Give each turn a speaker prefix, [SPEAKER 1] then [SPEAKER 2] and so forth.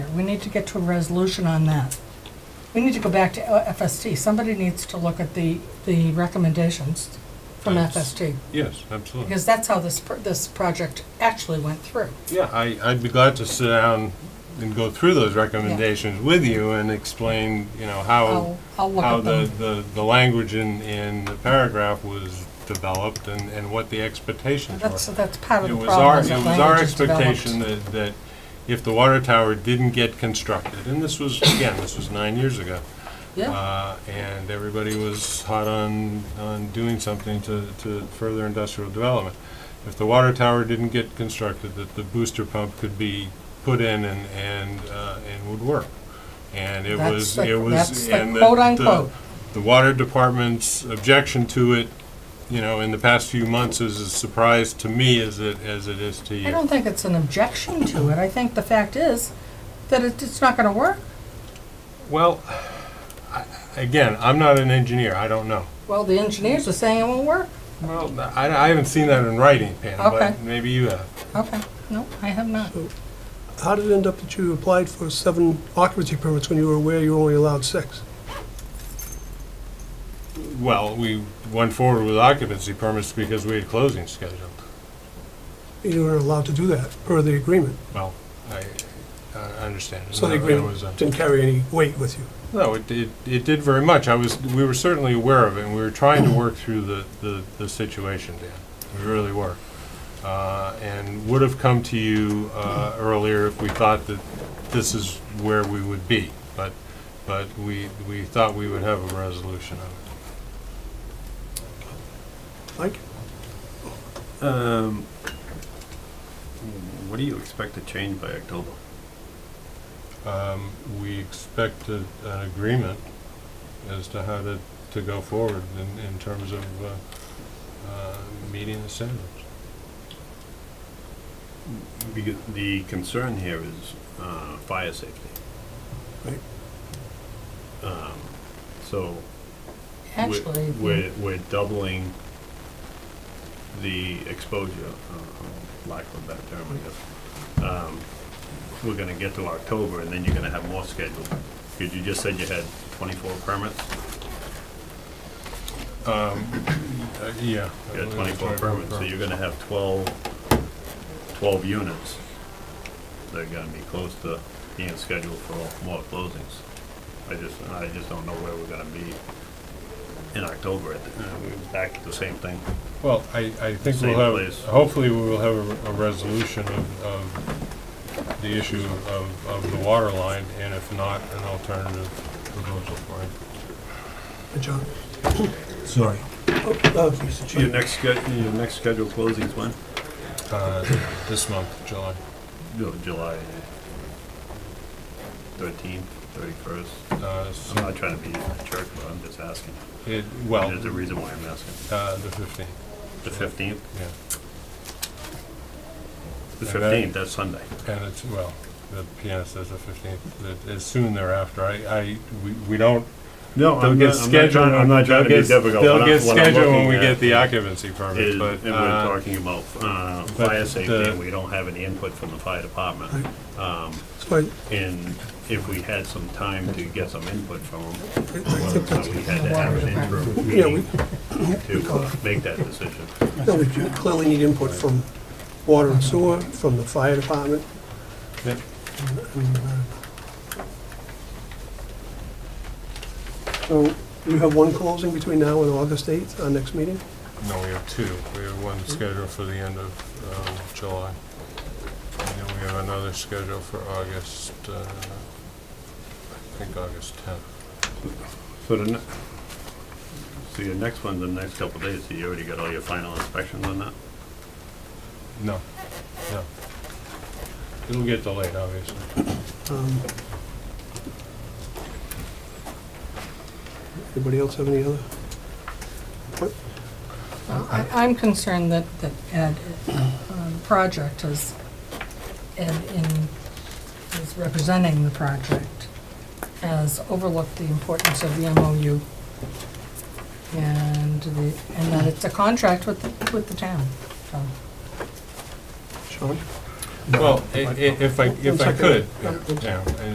[SPEAKER 1] we need to get to a resolution on that. We need to go back to uh, FST. Somebody needs to look at the, the recommendations from
[SPEAKER 2] Yes.
[SPEAKER 1] FST,
[SPEAKER 2] Yes, absolutely.
[SPEAKER 1] because that's how this, pr- this project actually went through.
[SPEAKER 2] Yeah, I, I'd be glad to sit down and go through those recommendations with you and explain, you know,
[SPEAKER 1] I'll,
[SPEAKER 2] how,
[SPEAKER 1] I'll look
[SPEAKER 2] Oh, how
[SPEAKER 1] at
[SPEAKER 2] the,
[SPEAKER 1] them.
[SPEAKER 2] the, the language in, in the paragraph was developed and, and what the expectations
[SPEAKER 1] That's,
[SPEAKER 2] were.
[SPEAKER 1] that's part of
[SPEAKER 2] It
[SPEAKER 1] the
[SPEAKER 2] was our,
[SPEAKER 1] problem. is
[SPEAKER 2] it
[SPEAKER 1] that
[SPEAKER 2] was our
[SPEAKER 1] language is developed.
[SPEAKER 2] expectation that, that if the water tower didn't get constructed, and this was, again, this was nine years ago.
[SPEAKER 1] Yeah,
[SPEAKER 2] Uh, And everybody was hot on, on doing something to, to further industrial development. If the water tower didn't get constructed, that the booster pump could be put in and, and, uh, and would work. And it
[SPEAKER 1] That's
[SPEAKER 2] was,
[SPEAKER 1] the-
[SPEAKER 2] it
[SPEAKER 1] that's
[SPEAKER 2] was,
[SPEAKER 1] the
[SPEAKER 2] and the-
[SPEAKER 1] quote unquote.
[SPEAKER 2] the, the water department's objection to it, you know, in the past few months is a surprise to me as it, as it is to you.
[SPEAKER 1] I don't think it's an objection to it. I think the fact is that it- it's not gonna work.
[SPEAKER 2] Well, I- again, I'm not an engineer, I don't know.
[SPEAKER 1] Well, the engineers are saying it won't work.
[SPEAKER 2] Well, I, I haven't seen that in writing, Pam,
[SPEAKER 1] Okay.
[SPEAKER 2] but maybe you have.
[SPEAKER 1] Okay, no, I have not.
[SPEAKER 3] How did it end up that you applied for seven occupancy permits when you were aware you were only allowed six?
[SPEAKER 2] Well, we went forward with occupancy permits because we had closing scheduled.
[SPEAKER 3] You were allowed to do that per the agreement.
[SPEAKER 2] Well, I, I understand.
[SPEAKER 3] So the
[SPEAKER 2] There
[SPEAKER 3] agreement
[SPEAKER 2] was uh, a-
[SPEAKER 3] didn't carry any weight with you.
[SPEAKER 2] No, it, it, it did very much. I was, we were certainly aware of it, and we were trying to work through the, the, the situation, Dan. We really were. Uh, and would have come to you, uh, earlier if we thought that this is where we would be. But, but we, we thought we would have a resolution of it.
[SPEAKER 3] Mike,
[SPEAKER 4] Um, what do you expect to change by October?
[SPEAKER 2] Um, We expect a- an agreement as to how to, to go forward in, in terms of uh, uh, meeting the standards.
[SPEAKER 4] Because the concern here is, uh, fire safety.
[SPEAKER 3] Right.
[SPEAKER 4] Um, so. we're-
[SPEAKER 1] Actually,
[SPEAKER 4] We're, we're doubling the exposure, uh, lack of a better term, I guess. Um, We're gonna get to October and then you're gonna have more scheduled. Because you just said you had twenty-four permits?
[SPEAKER 2] Uh, Yeah.
[SPEAKER 4] You got twenty-four permits, so you're gonna have 12 12 units. They're gonna be close to being scheduled for more closings. I just, I just don't know where we're gonna be in October. at the- we're Back to the same thing.
[SPEAKER 2] Well, I, I think
[SPEAKER 4] Same
[SPEAKER 2] we'll have,
[SPEAKER 4] place.
[SPEAKER 2] hopefully we will have a- a resolution of, of the issue of, of the water line, and if not, an alternative proposal for it.
[SPEAKER 3] Uh, John.
[SPEAKER 5] Sorry.
[SPEAKER 3] Oh, uh, Mr.
[SPEAKER 4] Your
[SPEAKER 3] Chair.
[SPEAKER 4] next, sched- your next scheduled closing's when?
[SPEAKER 2] Uh, This month, July.
[SPEAKER 4] Ju- July 13th, 31st.
[SPEAKER 2] Uh,
[SPEAKER 4] I'm not trying to be a jerk, but I'm just asking.
[SPEAKER 2] it- Well,
[SPEAKER 4] There's a reason why I'm asking.
[SPEAKER 2] uh, the 15th,
[SPEAKER 4] The 15th?
[SPEAKER 2] yeah.
[SPEAKER 4] The
[SPEAKER 2] And that-
[SPEAKER 4] 15th, that's Sunday.
[SPEAKER 2] And it's, well, the pianist says the fifteenth, that is soon thereafter. I, I, we, we don't.
[SPEAKER 4] No,
[SPEAKER 2] they'll
[SPEAKER 4] I'm
[SPEAKER 2] get
[SPEAKER 4] not, I'm not
[SPEAKER 2] scheduled-
[SPEAKER 4] trying, I'm not trying to
[SPEAKER 2] they'll
[SPEAKER 4] be
[SPEAKER 2] get-
[SPEAKER 4] difficult. What
[SPEAKER 2] They'll
[SPEAKER 4] I'm-
[SPEAKER 2] get
[SPEAKER 4] what I'm
[SPEAKER 2] scheduled when we
[SPEAKER 4] looking at
[SPEAKER 2] get the occupancy permit,
[SPEAKER 4] Is, and
[SPEAKER 2] but,
[SPEAKER 4] we're
[SPEAKER 2] uh,
[SPEAKER 4] talking about, uh,
[SPEAKER 2] but
[SPEAKER 4] fire safety,
[SPEAKER 2] the-
[SPEAKER 4] and we don't have any input from the fire department. Um,
[SPEAKER 3] So I,
[SPEAKER 4] and if we had some time to get some input from them,
[SPEAKER 3] I- I
[SPEAKER 4] well,
[SPEAKER 3] think that's,
[SPEAKER 4] we had to have an interim
[SPEAKER 3] yeah, we,
[SPEAKER 4] meeting to make that decision.
[SPEAKER 3] no, we do clearly need input from water and sewer, from the fire department.
[SPEAKER 2] yeah,
[SPEAKER 3] and, uh, So you have one closing between now and August 8th, our next meeting?
[SPEAKER 2] no, we have two. We have one scheduled for the end of, um, July. And then we have another scheduled for August, uh, I think August tenth.
[SPEAKER 4] So the, ne- so your next one, the next couple of days, so you already got all your final inspections on that?
[SPEAKER 2] No, no. It'll get delayed, obviously.
[SPEAKER 3] Um, Anybody else have any other? What?
[SPEAKER 1] Well, I- I'm concerned that, that Ed, um, project is, Ed in, is representing the project, has overlooked the importance of the MOU and the, and that it's a contract with, the- with the town, so.
[SPEAKER 3] Sean?
[SPEAKER 2] Well, i- i- if I, if I could,
[SPEAKER 3] One second.
[SPEAKER 2] yeah, and